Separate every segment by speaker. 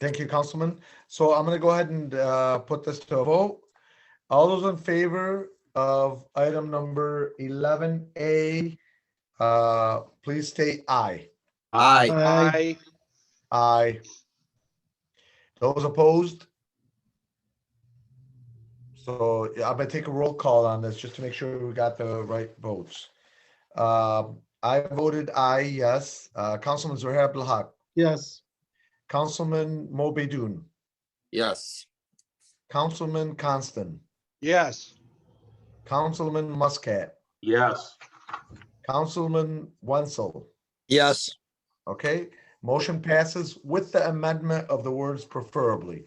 Speaker 1: Thank you, Councilman. So I'm gonna go ahead and uh, put this to a vote. All those in favor of item number eleven A, uh, please state aye.
Speaker 2: Aye.
Speaker 3: Aye.
Speaker 1: Aye. Those opposed? So yeah, I'm gonna take a roll call on this just to make sure we got the right votes. Um, I voted aye, yes. Uh, Councilman Zohair Abdulhak,
Speaker 3: Yes.
Speaker 1: Councilman Mo Bedun,
Speaker 2: Yes.
Speaker 1: Councilman Constant,
Speaker 3: Yes.
Speaker 1: Councilman Muscat,
Speaker 4: Yes.
Speaker 1: Councilman Wenzel.
Speaker 2: Yes.
Speaker 1: Okay, motion passes with the amendment of the words preferably.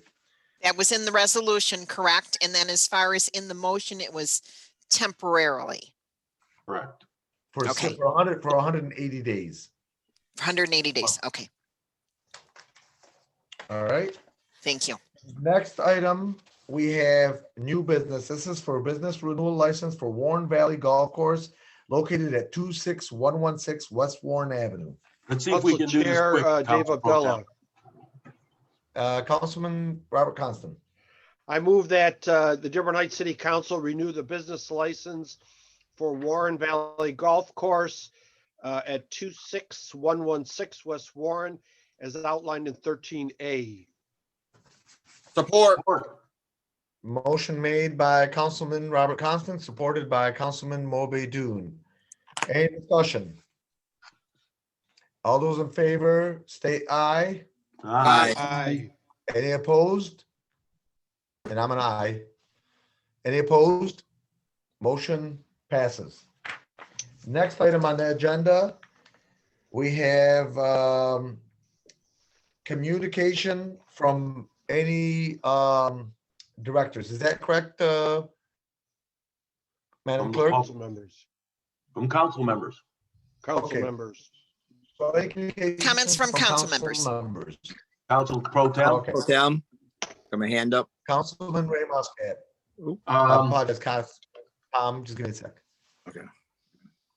Speaker 5: That was in the resolution, correct? And then as far as in the motion, it was temporarily,
Speaker 4: Correct.
Speaker 1: For s-
Speaker 5: Okay.
Speaker 1: for 100, for 180 days.
Speaker 5: hundred and eighty days. Okay,
Speaker 1: All right.
Speaker 5: thank you.
Speaker 1: Next item, we have new business. This is for business renewal license for Warren Valley Golf Course located at 26116 West Warren Avenue.
Speaker 4: Let's see if we
Speaker 3: Council
Speaker 4: can do this
Speaker 3: Chair
Speaker 4: quick.
Speaker 3: uh, Dave
Speaker 4: Council Pro Tem.
Speaker 3: Abdullah,
Speaker 1: Uh, Councilman Robert Constant.
Speaker 3: I move that uh, the Dearborn Heights City Council renew the business license for Warren Valley Golf Course uh, at 26116 West Warren as outlined in 13A.
Speaker 2: Support.
Speaker 4: Support.
Speaker 1: Motion made by Councilman Robert Constant, supported by Councilman Moby Dune. Any discussion? All those in favor, state aye.
Speaker 4: Aye.
Speaker 3: Aye.
Speaker 1: Any opposed? And I'm an aye. Any opposed? Motion passes. Next item on the agenda, we have um, communication from any um, directors. Is that correct? uh, Madam
Speaker 4: From the
Speaker 1: Clerk?
Speaker 4: public.
Speaker 3: Council members,
Speaker 4: From council members.
Speaker 3: council
Speaker 1: Okay.
Speaker 3: members.
Speaker 1: So any communication
Speaker 5: Comments from council members.
Speaker 1: Members.
Speaker 4: Council Pro Tem.
Speaker 1: Oh, Okay,
Speaker 2: Down. Got my hand up.
Speaker 1: Councilman Ray Muscat. I
Speaker 4: Um,
Speaker 1: apologize, Cons- Tom, just give me a sec.
Speaker 2: Okay.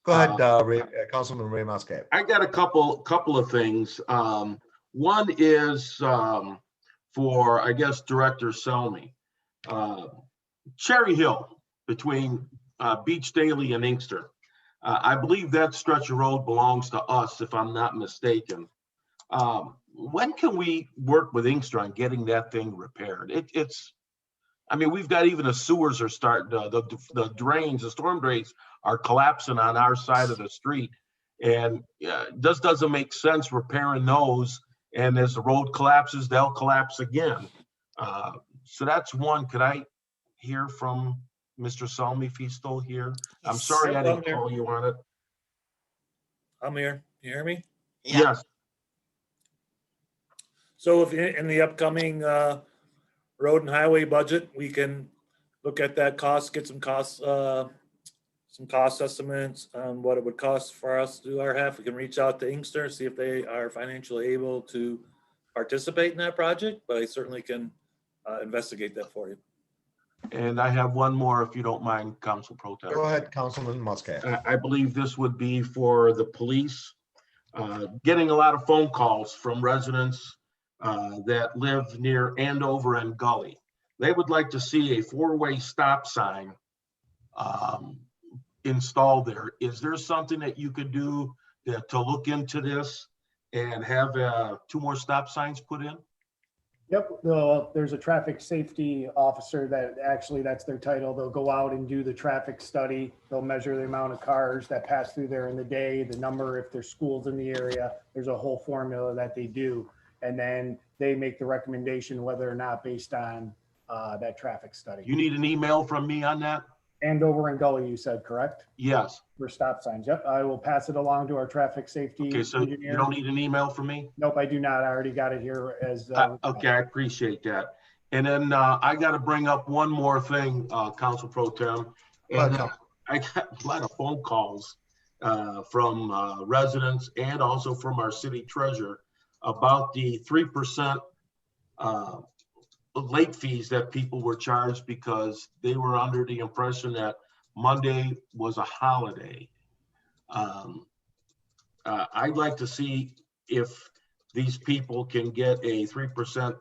Speaker 1: Go ahead, uh, Ray, uh, Councilman Ray Muscat.
Speaker 4: I got a couple, couple of things. Um, one is, um, for, I guess, Director Selmy. Uh, Cherry Hill between, uh, Beach Daily and Inkster. Uh, I believe that stretch of road belongs to us, if I'm not mistaken. Um, when can we work with Inkster on getting that thing repaired? It, it's, I mean, we've got even the sewers are starting, to- the, the drains, the storm drains are collapsing on our side of the street. And yeah, it just doesn't make sense repairing those. And as the road collapses, they'll collapse again. Uh, So that's one. Could I hear from Mr. Salmi if he's still here? I'm sorry I didn't call you on it.
Speaker 6: I'm here. You hear me?
Speaker 5: Yeah.
Speaker 4: Yes,
Speaker 6: So if in in the upcoming uh, road and highway budget, we can look at that cost, get some costs, uh, some cost estimates on what it would cost for us to do our half. We can reach out to Inkster, see if they are financially able to participate in that project, but I certainly can uh, investigate that for you.
Speaker 4: and I have one more if you don't mind, Council Pro Tem.
Speaker 1: Go ahead, Councilman Muscat.
Speaker 4: I, I believe this would be for the police. Uh, Getting a lot of phone calls from residents uh, that live near Andover and Gully. They would like to see a four-way stop sign um, installed there. Is there something that you could do to to look into this and have uh, two more stop signs put in?
Speaker 7: Yep, the- there's a traffic safety officer that, actually, that's their title. They'll go out and do the traffic study. They'll measure the amount of cars that pass through there in the day, the number, if there's schools in the area. There's a whole formula that they do. And then they make the recommendation whether or not based on uh, that traffic
Speaker 4: You
Speaker 7: study.
Speaker 4: need an email from me on that?
Speaker 7: Andover and Gully, you said, correct?
Speaker 4: Yes.
Speaker 7: For stop signs. Yep, I will pass it along to our traffic safety
Speaker 4: Okay, so you
Speaker 7: engineer.
Speaker 4: don't need an email from me?
Speaker 7: Nope, I do not. I already got it here as.
Speaker 4: Uh,
Speaker 7: uh,
Speaker 4: Okay, I appreciate that. And then uh, I got to bring up one more thing, uh, Council Pro Tem. And uh, I got a lot of phone calls uh, from uh, residents and also from our city treasurer about the 3% uh, late fees that people were charged because they were under the impression that Monday was a holiday. Um, uh, I'd like to see if these people can get a three percent